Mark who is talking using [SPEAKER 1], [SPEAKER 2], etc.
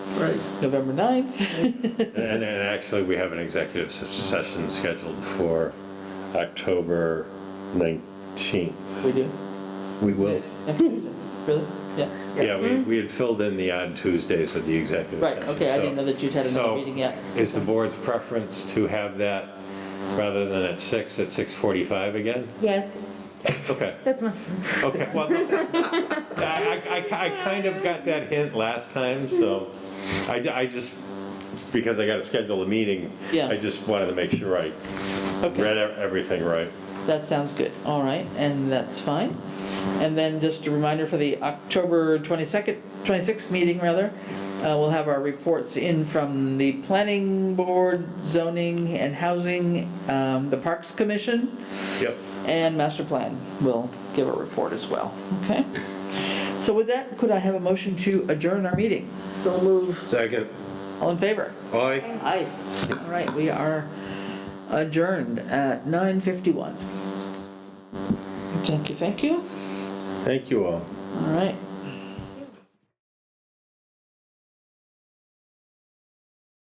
[SPEAKER 1] Right.
[SPEAKER 2] November 9th.
[SPEAKER 3] And, and actually, we have an executive s- session scheduled for October 19th.
[SPEAKER 2] We do.
[SPEAKER 3] We will.
[SPEAKER 2] Next Tuesday. Really? Yeah.
[SPEAKER 3] Yeah, we, we had filled in the odd Tuesdays with the executive
[SPEAKER 2] Mm-hmm. Right,
[SPEAKER 3] session.
[SPEAKER 2] okay, I
[SPEAKER 3] so-
[SPEAKER 2] didn't know that you'd had another
[SPEAKER 3] so
[SPEAKER 2] meeting yet.
[SPEAKER 3] Is the board's preference to have that rather than at 6, at 6:45 again?
[SPEAKER 4] Yes,
[SPEAKER 3] Okay,
[SPEAKER 4] that's my,
[SPEAKER 3] okay, well, no, I, I- I, I kind of got that hint last time, so I, ju- I just, because I gotta schedule a meeting,
[SPEAKER 2] Yeah.
[SPEAKER 3] I just wanted to make sure I
[SPEAKER 2] Okay,
[SPEAKER 3] read e- everything right.
[SPEAKER 2] that sounds good. All right, and that's fine. And then just a reminder for the October 22nd, 26th meeting rather, uh, we'll have our reports in from the planning board, zoning and housing, um, the Parks Commission,
[SPEAKER 3] Yep.
[SPEAKER 2] and master plan will give a report as well, okay? So with that, could I have a motion to adjourn our meeting?
[SPEAKER 1] So move.
[SPEAKER 3] Second.
[SPEAKER 2] All in favor?
[SPEAKER 3] Aye.
[SPEAKER 2] Aye. All right, we are adjourned at 9:51. Thank you, thank you.
[SPEAKER 3] Thank you all.
[SPEAKER 2] All right.